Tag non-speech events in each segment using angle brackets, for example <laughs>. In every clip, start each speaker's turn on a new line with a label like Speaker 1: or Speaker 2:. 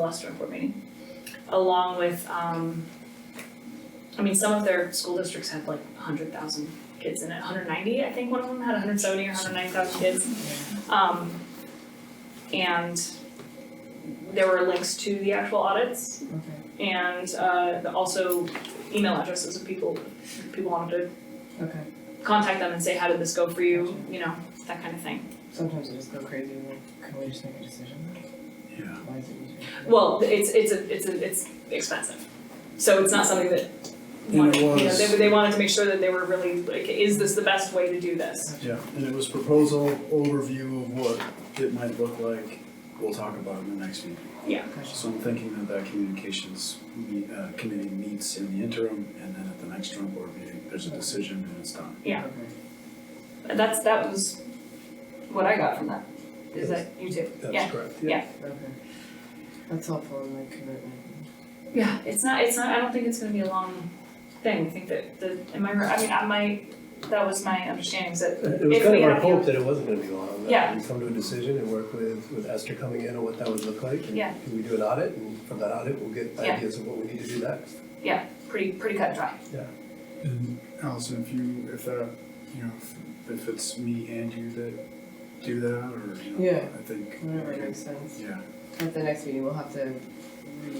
Speaker 1: last report meeting, along with, um, I mean, some of their school districts had like hundred thousand kids in it, hundred ninety, I think one of them had hundred seventy or hundred ninety thousand kids. Um, and there were links to the actual audits
Speaker 2: Okay,
Speaker 1: and, uh, also email addresses of people, if people wanted
Speaker 2: okay.
Speaker 1: to contact them and say, how did this go for you, you know, that kind of thing.
Speaker 2: Sometimes I just go crazy, like, can we just make a decision?
Speaker 3: Yeah.
Speaker 2: Why is it easier?
Speaker 1: Well, it's it's a it's a it's expensive, so it's not something that. wanted- You know, they
Speaker 3: was-
Speaker 1: they wanted to make sure that they were really like, is this the best way to do this?
Speaker 3: Yeah, and it was proposal overview of what it might look like. We'll talk about it in the next meeting.
Speaker 2: Gotcha.
Speaker 3: So I'm thinking that that communications me- uh, committee meets in the interim, and then at the next joint board meeting, there's a decision and it's done.
Speaker 1: Yeah.
Speaker 2: Okay.
Speaker 1: That's that was what I got from that. Is that you too? Yeah.
Speaker 3: correct.
Speaker 2: Okay. That's helpful in like commitment.
Speaker 1: Yeah, it's not it's not. I don't think it's going to be a long thing. I think that the am I right? I mean, I might. That was my understanding. Is that
Speaker 4: It was
Speaker 1: If
Speaker 4: kind
Speaker 1: we
Speaker 4: of our
Speaker 1: have
Speaker 4: hope
Speaker 1: you-
Speaker 4: that it wasn't gonna be long,
Speaker 1: Yeah.
Speaker 4: that we come to a decision and work with, with Esther coming in on what that would look like. and
Speaker 1: Yeah.
Speaker 4: We do an audit, and from that audit, we'll get
Speaker 1: Yeah.
Speaker 4: ideas of what we need to do next.
Speaker 1: pretty pretty cut and dry.
Speaker 3: And Allison, if you, if that, you know, if- if it's me and you that do that, or, you know,
Speaker 2: Yeah.
Speaker 3: I think.
Speaker 2: Whatever makes sense.
Speaker 3: Yeah,
Speaker 2: At the next meeting, we'll have to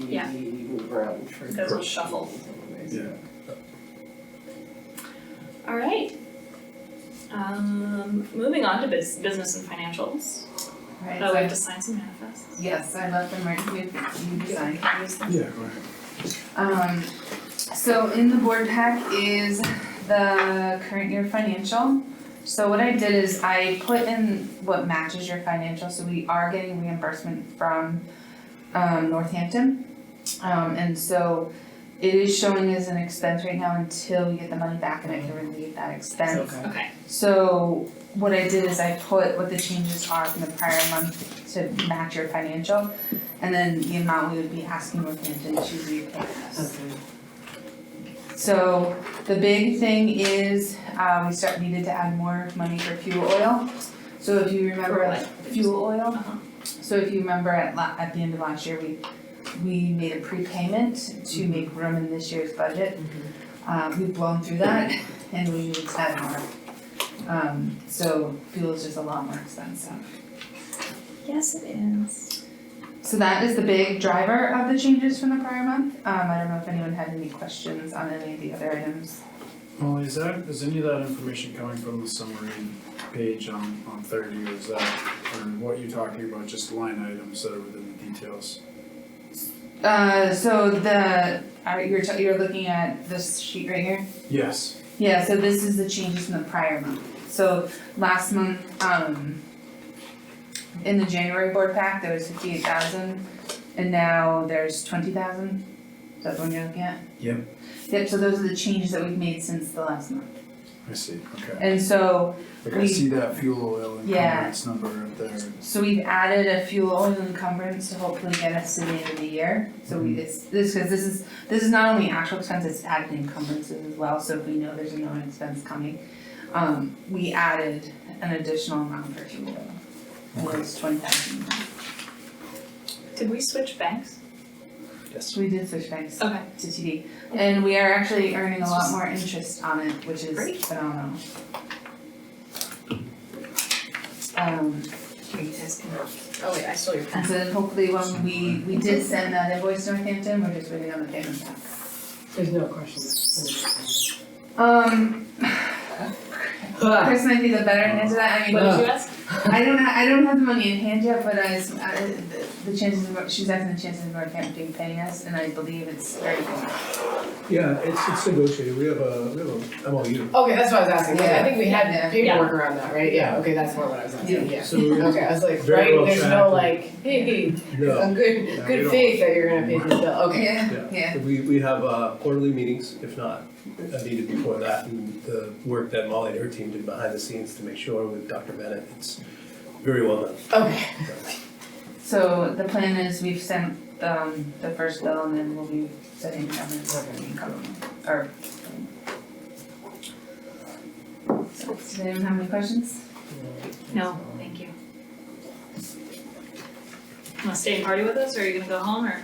Speaker 1: Yeah.
Speaker 2: re-move around for.
Speaker 1: Because we'll shuffle.
Speaker 2: Anyways,
Speaker 3: Yeah.
Speaker 1: All right. Um, moving on to bus- business and financials.
Speaker 5: Right,
Speaker 1: Oh,
Speaker 5: so
Speaker 1: we have
Speaker 5: I-
Speaker 1: to sign some manifests.
Speaker 5: yes, I left them right with you design.
Speaker 3: yeah, go ahead.
Speaker 5: Um, so in the board pack is the current year financial. So what I did is I put in what matches your financial, so we are getting reimbursement from um Northampton. Um, and so it is showing as an expense right now until we get the money back and I can relieve that expense.
Speaker 2: Okay.
Speaker 1: Okay.
Speaker 5: So what I did is I put what the changes are from the prior month to match your financial, and then the amount we would be asking Northampton to repay us.
Speaker 2: Okay.
Speaker 5: So the big thing is, uh, we start, needed to add more money for fuel oil. So if you remember,
Speaker 1: For what?
Speaker 5: fuel oil,
Speaker 1: Uh-huh.
Speaker 5: so if you remember at la- at the end of last year, we, we made a prepayment to make room in this year's budget. Uh, we've blown through that <laughs> and we need to add more. Um, so fuel is just a lot more expensive.
Speaker 1: Yes, it is.
Speaker 5: So that is the big driver of the changes from the prior month. Um, I don't know if anyone had any questions on any of the other items.
Speaker 3: Molly, is that, is any of that information coming from the summary page on, on thirty, or is that, or what you're talking about, just line items that are within the details?
Speaker 5: Uh, so the, are, you're, t- you're looking at this sheet right here?
Speaker 3: Yes.
Speaker 5: Yeah, so this is the changes from the prior month. So last month, um, in the January board pack, there was fifty-eight thousand, and now there's twenty thousand. Is that the one you're looking at?
Speaker 3: Yep.
Speaker 5: Yep, so those are the changes that we've made since the last month.
Speaker 3: I see, okay.
Speaker 5: And so
Speaker 3: Like I
Speaker 5: We-
Speaker 3: see that fuel oil
Speaker 5: Yeah.
Speaker 3: encumbrance number up there.
Speaker 5: So we've added a fuel oil encumbrance to hopefully get us to the end of the year. So we, it's, this, cause this is, this is not only actual expense, it's added encumbrances as well, so if we know there's a known expense coming. Um, we added an additional amount for fuel oil, and it was twenty thousand.
Speaker 1: Did we switch banks?
Speaker 4: Yes.
Speaker 5: We did switch banks to
Speaker 1: Okay.
Speaker 5: TD, and we are actually earning a lot more interest on it, which
Speaker 1: Great.
Speaker 5: is phenomenal. Um,
Speaker 1: Oh wait, I stole your
Speaker 5: And so then hopefully when we, we did send that invoice to Northampton, we're just waiting on the payment back.
Speaker 2: There's no questions.
Speaker 5: Um,
Speaker 2: Ah,
Speaker 5: Chris might be the better answer to that, I mean,
Speaker 1: What did you ask?
Speaker 5: I don't, ha- I don't have the money in hand yet, but I, s- I- the- the chances of, she's asking the chances of Northampton paying us, and I believe it's very good.
Speaker 4: Yeah, it's, it's negotiated, we have a, we have a MOU.
Speaker 2: Okay, that's what I was asking, 'cause I think we
Speaker 5: Yeah.
Speaker 2: had paperwork around that, right? Yeah, okay, that's more what I was asking, yeah.
Speaker 3: So we-
Speaker 2: Okay, I was like,
Speaker 3: Very
Speaker 2: right,
Speaker 3: well
Speaker 2: there's no
Speaker 3: tracked.
Speaker 2: like, hey,
Speaker 4: No,
Speaker 2: I'm good,
Speaker 3: Yeah, we
Speaker 2: good
Speaker 3: don't-
Speaker 2: faith that you're gonna pay this bill, okay.
Speaker 5: Yeah, yeah,
Speaker 4: we, we have uh, quarterly meetings, if not, I needed before that, and the work that Molly and her team did behind the scenes to make sure with Dr. Bennett, it's very well done.
Speaker 2: Okay,
Speaker 5: so the plan is we've sent, um, the first bill, and then we'll be sending the government, or. So, does anyone have any questions?
Speaker 1: No, thank you. wanna stay and party with us, or are you gonna go home, or?